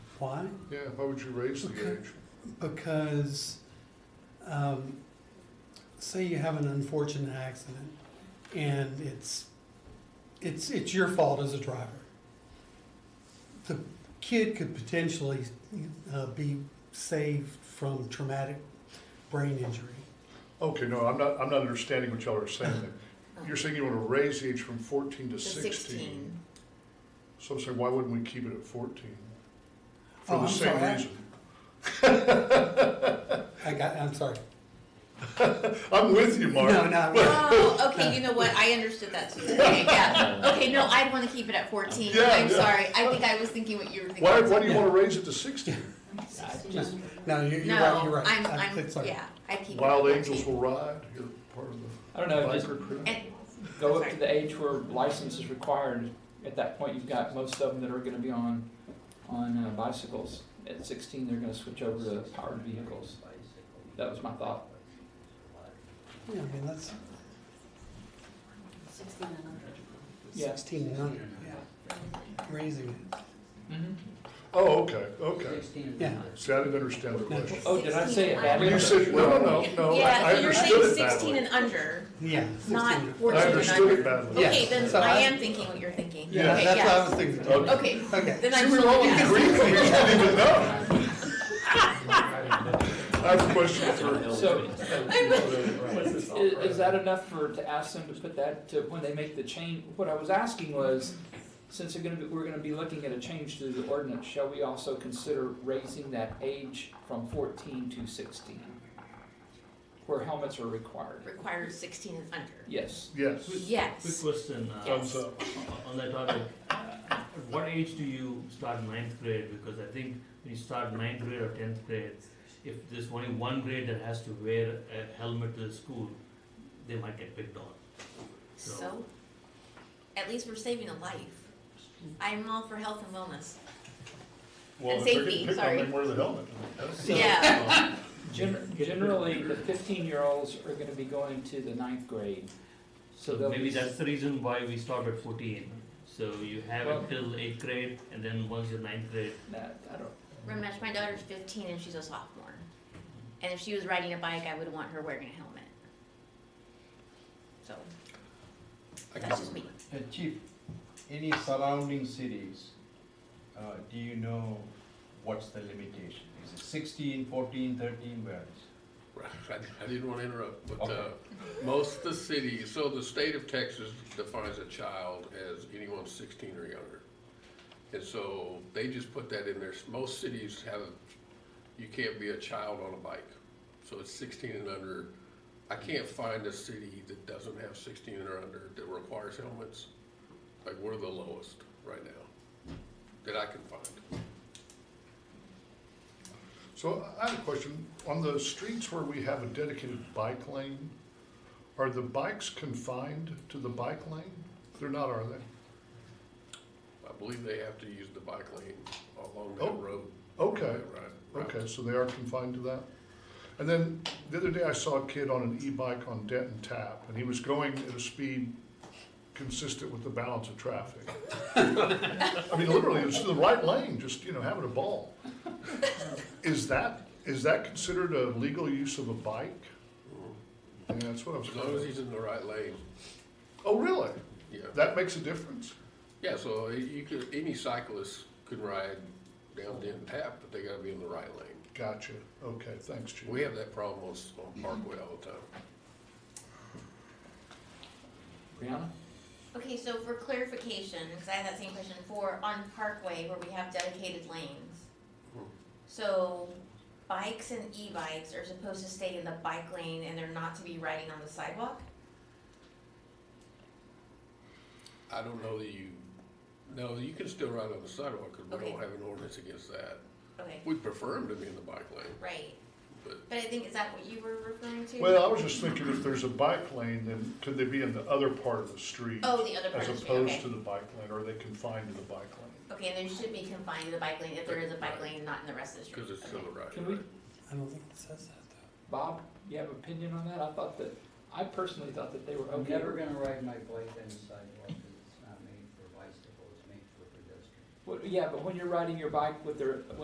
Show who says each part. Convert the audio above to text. Speaker 1: Why?
Speaker 2: Yeah, why would you raise the
Speaker 1: Okay.
Speaker 2: age?
Speaker 1: Because, um, say you have an unfortunate accident and it's, it's, it's your fault as a driver. The kid could potentially, uh, be saved from traumatic brain injury.
Speaker 2: Okay, no, I'm not, I'm not understanding what y'all are saying.
Speaker 3: Uh-huh.
Speaker 2: there. You're saying you want to raise the age from fourteen to
Speaker 3: The
Speaker 2: sixteen. So I'm saying, why wouldn't we keep it at fourteen? For
Speaker 1: Oh,
Speaker 2: the
Speaker 1: I'm
Speaker 2: same
Speaker 1: sorry, I-
Speaker 2: reason.
Speaker 1: I got, I'm sorry.
Speaker 2: I'm with you, Mark.
Speaker 1: No, no, no.
Speaker 3: Oh, okay, you know what, I understood that too, okay, yeah, okay, no, I'd wanna keep it at fourteen,
Speaker 2: Yeah,
Speaker 3: I'm
Speaker 2: yeah.
Speaker 3: sorry, I think I was thinking what you were thinking.
Speaker 2: Why, why do you
Speaker 1: Yeah.
Speaker 2: want to raise it to sixteen?
Speaker 1: Just, no, you're, you're right, you're
Speaker 3: No,
Speaker 1: right.
Speaker 3: I'm,
Speaker 1: I-
Speaker 3: I'm,
Speaker 1: it's all right.
Speaker 3: yeah, I keep it at
Speaker 2: Wild
Speaker 3: fourteen.
Speaker 2: Angels Will Ride, you're part of the
Speaker 4: I don't know, just
Speaker 2: biker crew.
Speaker 3: And,
Speaker 4: go up to the age where license is required. At that point, you've got most of them that are gonna be on, on uh, bicycles. At sixteen, they're gonna switch over to powered vehicles. That was my thought.
Speaker 1: Yeah, I mean, that's
Speaker 4: Yeah.
Speaker 1: sixteen hundred, yeah. Raising it.
Speaker 4: Mm-hmm.
Speaker 2: Oh, okay, okay.
Speaker 1: Yeah.
Speaker 2: See, I didn't understand the
Speaker 1: No.
Speaker 2: question.
Speaker 4: Oh, did I say it
Speaker 3: 16.
Speaker 4: badly?
Speaker 2: You said, no, no, no, no, I
Speaker 3: Yeah,
Speaker 2: I
Speaker 3: so you're saying
Speaker 2: understood it
Speaker 3: sixteen
Speaker 2: badly.
Speaker 3: and under,
Speaker 1: Yeah.
Speaker 3: not
Speaker 1: 16.
Speaker 2: I
Speaker 3: fourteen and under.
Speaker 2: understood it badly.
Speaker 3: Okay,
Speaker 1: Yes.
Speaker 3: then
Speaker 1: So I-
Speaker 3: I am thinking what you're thinking, okay,
Speaker 1: Yeah, that's what I
Speaker 3: yes,
Speaker 1: was thinking.
Speaker 2: Okay.
Speaker 3: okay,
Speaker 1: Okay.
Speaker 3: then
Speaker 2: See,
Speaker 3: I'm
Speaker 2: we were all
Speaker 3: totally
Speaker 2: in
Speaker 3: yes.
Speaker 2: agreement, we just didn't even know. I have a question for
Speaker 4: So,
Speaker 2: What's
Speaker 4: is, is that enough for, to ask them to put that, to, when they make the change? What I was asking was, since they're gonna be, we're gonna be looking at a change to the ordinance, shall we also consider raising that age from fourteen to sixteen? Where helmets are required?
Speaker 3: Requires sixteen and under,
Speaker 4: Yes.
Speaker 2: Yes.
Speaker 5: Quick
Speaker 3: yes,
Speaker 5: question, uh,
Speaker 3: Yes.
Speaker 2: Thumbs up.
Speaker 5: on- on that topic, at what age do you start ninth grade? Because I think when you start ninth grade or tenth grade, if there's only one grade that has to wear a helmet to the school, they might get picked on.
Speaker 3: so, at least we're saving a life. I'm all for health and wellness,
Speaker 2: Well,
Speaker 3: And
Speaker 2: if they're
Speaker 3: safety,
Speaker 2: getting picked on,
Speaker 3: sorry.
Speaker 2: They wear the helmet.
Speaker 4: So-
Speaker 3: yeah,
Speaker 4: Gen- Generally, the fifteen-year-olds are gonna be going to the ninth grade, so
Speaker 5: So
Speaker 4: they'll
Speaker 5: maybe
Speaker 4: be,
Speaker 5: that's the reason why we stop at fourteen. So you have
Speaker 4: Well-
Speaker 5: it till eighth grade, and then once you're ninth grade,
Speaker 4: that, I don't,
Speaker 3: Ramesh, my daughter's fifteen and she's a sophomore. And if she was riding a bike, I would want her wearing a helmet. So, that's just me.
Speaker 6: Uh, Chief, any surrounding cities, uh, do you know what's the limitation? Is it sixteen, fourteen, thirteen, where is
Speaker 7: I I didn't want to interrupt, but
Speaker 6: Okay.
Speaker 7: uh, most of the cities, so the state of Texas defines a child as anyone sixteen or younger. And so they just put that in there. Most cities have, you can't be a child on a bike. So it's sixteen and under. I can't find a city that doesn't have sixteen or under that requires helmets. Like, we're the lowest right now that I can find.
Speaker 2: So I have a question. On the streets where we have a dedicated bike lane, are the bikes confined to the bike lane? They're not, are they?
Speaker 7: I believe they have to use the bike lane along that
Speaker 2: Oh,
Speaker 7: road.
Speaker 2: Okay,
Speaker 7: Right, right.
Speaker 2: okay, so they are confined to that. And then the other day I saw a kid on an e-bike on Denton Tap and he was going at a speed consistent with the balance of traffic. I mean, literally, it's the right lane, just, you know, having a ball. Is that, is that considered a legal use of a bike?
Speaker 7: Mm-hmm.
Speaker 2: Yeah, that's what I was
Speaker 7: As long as
Speaker 2: going
Speaker 7: he's in the right lane,
Speaker 2: Oh, really?
Speaker 7: yeah.
Speaker 2: That makes a difference?
Speaker 7: Yeah, so you could, any cyclist could ride down Denton Tap, but they gotta be in the right lane.
Speaker 2: Gotcha. Okay, thanks, Chief.
Speaker 7: We have that problem on, s- on Parkway all the time.
Speaker 4: Brianna?
Speaker 3: Okay, so for clarification, because I had that same question for on Parkway where we have dedicated lanes.
Speaker 7: Hmm.
Speaker 3: So bikes and e-bikes are supposed to stay in the bike lane and they're not to be riding on the sidewalk?
Speaker 7: I don't know that you, no, you can still ride on the sidewalk, cause we
Speaker 3: Okay.
Speaker 7: don't have an ordinance against that.
Speaker 3: Okay,
Speaker 7: We prefer him to be in the bike lane,
Speaker 3: right,
Speaker 7: but
Speaker 3: but I think, is that what you were referring to?
Speaker 2: Well, I was just thinking if there's a bike lane, then could they be in the other part of the street?
Speaker 3: Oh, the other part
Speaker 2: As
Speaker 3: of the street, okay.
Speaker 2: opposed to the bike lane, or are they confined to the bike lane?
Speaker 3: Okay, and they should be confined to the bike lane if there is a bike lane, not in the rest of the street.
Speaker 7: cause it's still
Speaker 3: Okay.
Speaker 7: the right
Speaker 4: Can we-
Speaker 7: lane.
Speaker 1: I don't think it says that
Speaker 4: Bob, you have opinion on that? I thought that, I personally thought that they were
Speaker 8: I'm
Speaker 4: okay.
Speaker 8: never gonna ride my bike on the sidewalk, 'cause it's not made for bicycles, it's made for pedestrians.
Speaker 4: Well, yeah, but when you're riding your bike with their,